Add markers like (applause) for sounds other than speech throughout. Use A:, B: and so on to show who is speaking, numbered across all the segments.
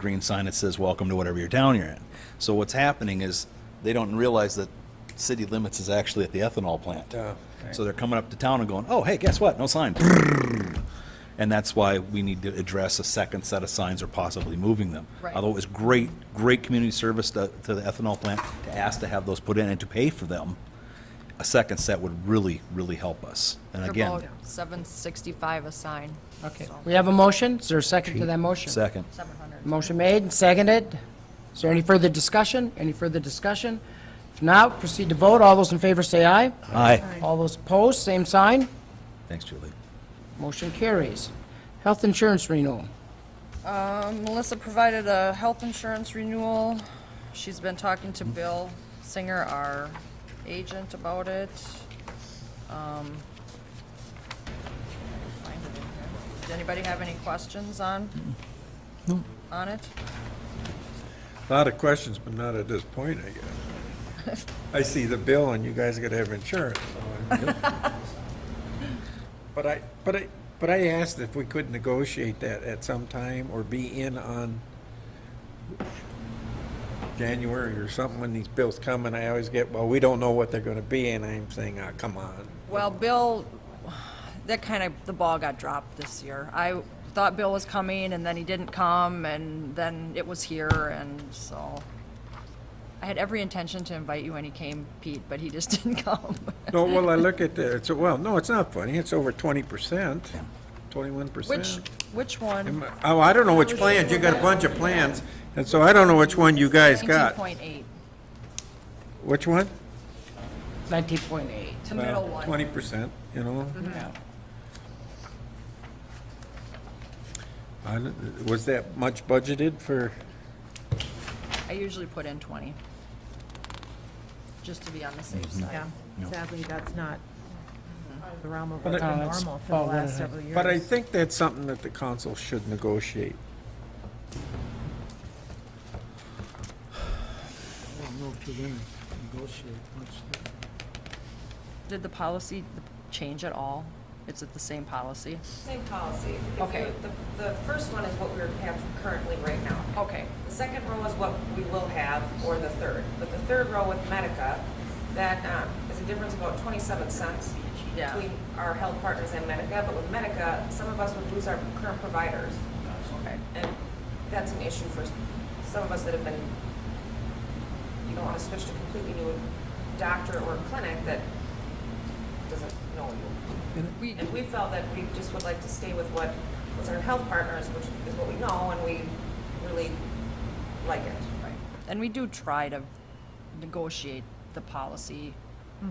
A: green sign that says welcome to whatever your town you're in. So what's happening is they don't realize that city limits is actually at the ethanol plant. So they're coming up to town and going, oh, hey, guess what? No sign. And that's why we need to address a second set of signs or possibly moving them.
B: Right.
A: Although it was great, great community service to, to the ethanol plant to ask to have those put in and to pay for them. A second set would really, really help us. And
B: They're
A: again,
B: about 765 a sign.
C: Okay,
B: So,
C: we have a motion. Is there a second to that motion?
A: second.
B: 700.
C: Motion made and seconded. Is there any further discussion? Any further discussion? If not, proceed to vote. All those in favor say aye.
A: Aye.
C: All those opposed, same sign.
A: Thanks, Julie.
C: Motion carries. Health insurance renewal.
B: Um, Melissa provided a health insurance renewal. She's been talking to Bill Singer, our agent, about it. Um, find it in here. Does anybody have any questions on? On it?
D: A Lot of questions, but not at this point, I guess. I see the bill and you guys gotta have insurance. so I'm- But I, but I, but I asked if we could negotiate that at some time or be in on January or something when these bills come and I always get, well, we don't know what they're gonna be and I'm saying, oh, come on.
B: Well, Bill, that kind of, the ball got dropped this year. I thought Bill was coming, and then he didn't come, and then it was here, and so. I had every intention to invite you when he came, Pete, but he just (laughs) didn't come.
D: No, well, I look at the, it's, well, no, it's not funny. It's over twenty percent, twenty-one percent.
B: Which, which one?
D: Oh, I don't know which plans, you got a bunch of plans, and so I don't know which one you guys
B: Nineteen
D: got.
B: point eight,
D: Which one?
C: 19.8.
B: the middle one. Mm-hmm.
D: Twenty percent, you know? I don't- Was that much budgeted for,
B: I usually put in twenty. Just to be on the safe
E: Yeah,
B: side.
E: sadly, that's not the realm of
D: But
E: what's
D: I-
C: No,
E: been
C: that's
E: normal for the
C: about what
E: last
C: I-
E: several years.
D: but I think that's something that the council should negotiate.
F: I don't know if you're gonna negotiate much.
B: Did the policy change at all? Is it the same policy?
G: Same policy. If you-
B: Okay.
G: The, the first one is what we have currently right now.
B: Okay,
G: The second row is what we will have, or the third. But the third row with Medica, that um, is a difference of about 27 cents
B: Yeah.
G: between our health partners and Medica. But with Medica, some of us would lose our current providers.
B: okay.
G: And that's an issue for some of us that have been, you don't want to switch to completely new doctor or clinic that doesn't know you.
B: We,
G: And we felt that we just would like to stay with what was our health partners, which is what we know, and we really like it.
B: Right. And we do try to negotiate the policy.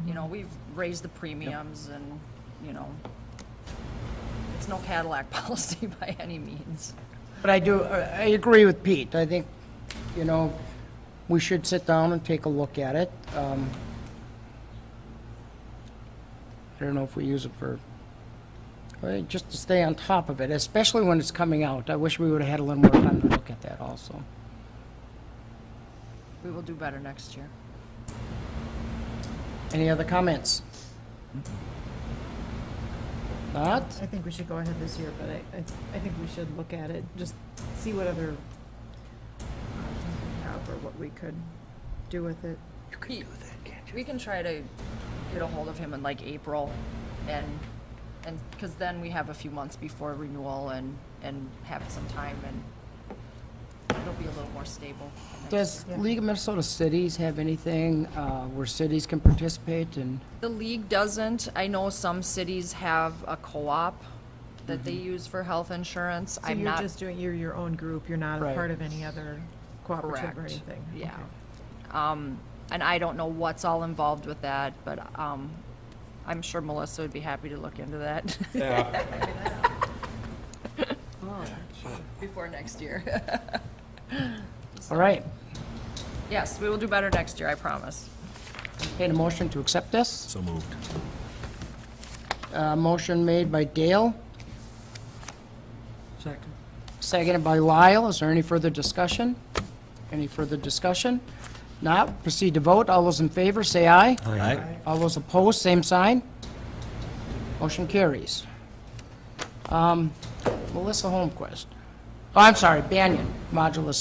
B: You know, we've raised the premiums and, you know, it's no Cadillac (laughs) policy by any means.
C: But I do, I I agree with Pete. I think, you know, we should sit down and take a look at it. Um, I don't know if we use it for, well, just to stay on top of it, especially when it's coming out. I wish we would've had a little more time to look at that also.
B: We will do better next year.
C: Any other comments? Not?
E: I think we should go ahead this year, but I, I- I think we should look at it, just see what other options we have or what we could do with it.
B: Pete, We can try to get a hold of him in like April and, and, because then we have a few months before renewal and, and have some time and it'll be a little more stable. next
C: Does League of Minnesota Cities have anything uh, where cities can participate and?
B: The league doesn't. I know some cities have a co-op that they use for health insurance.
E: Mm-hmm. So
B: I'm
E: you're
B: not,
E: just doing, you're your own group, you're not a
C: Right.
E: part of any other cooperative or
B: Correct.
E: anything?
B: Yeah.
E: Okay.
B: um, and I don't know what's all involved with that, but, um, I'm sure Melissa would be happy to look into that (laughs)
D: Yeah.
B: before next year. (laughs)
C: All right,
B: Yes, we will do better next year, I promise.
C: entertain a motion to accept this.
A: So moved.
C: Uh, Motion made by Dale,
F: Second.
C: seconded by Lyle. Is there any further discussion? Any further discussion? Not, proceed to vote. All those in favor, say aye.
A: Aye.
C: All those opposed, same sign. Motion carries. Um, Melissa Holmquist. Oh, I'm sorry, Banyan, Modulus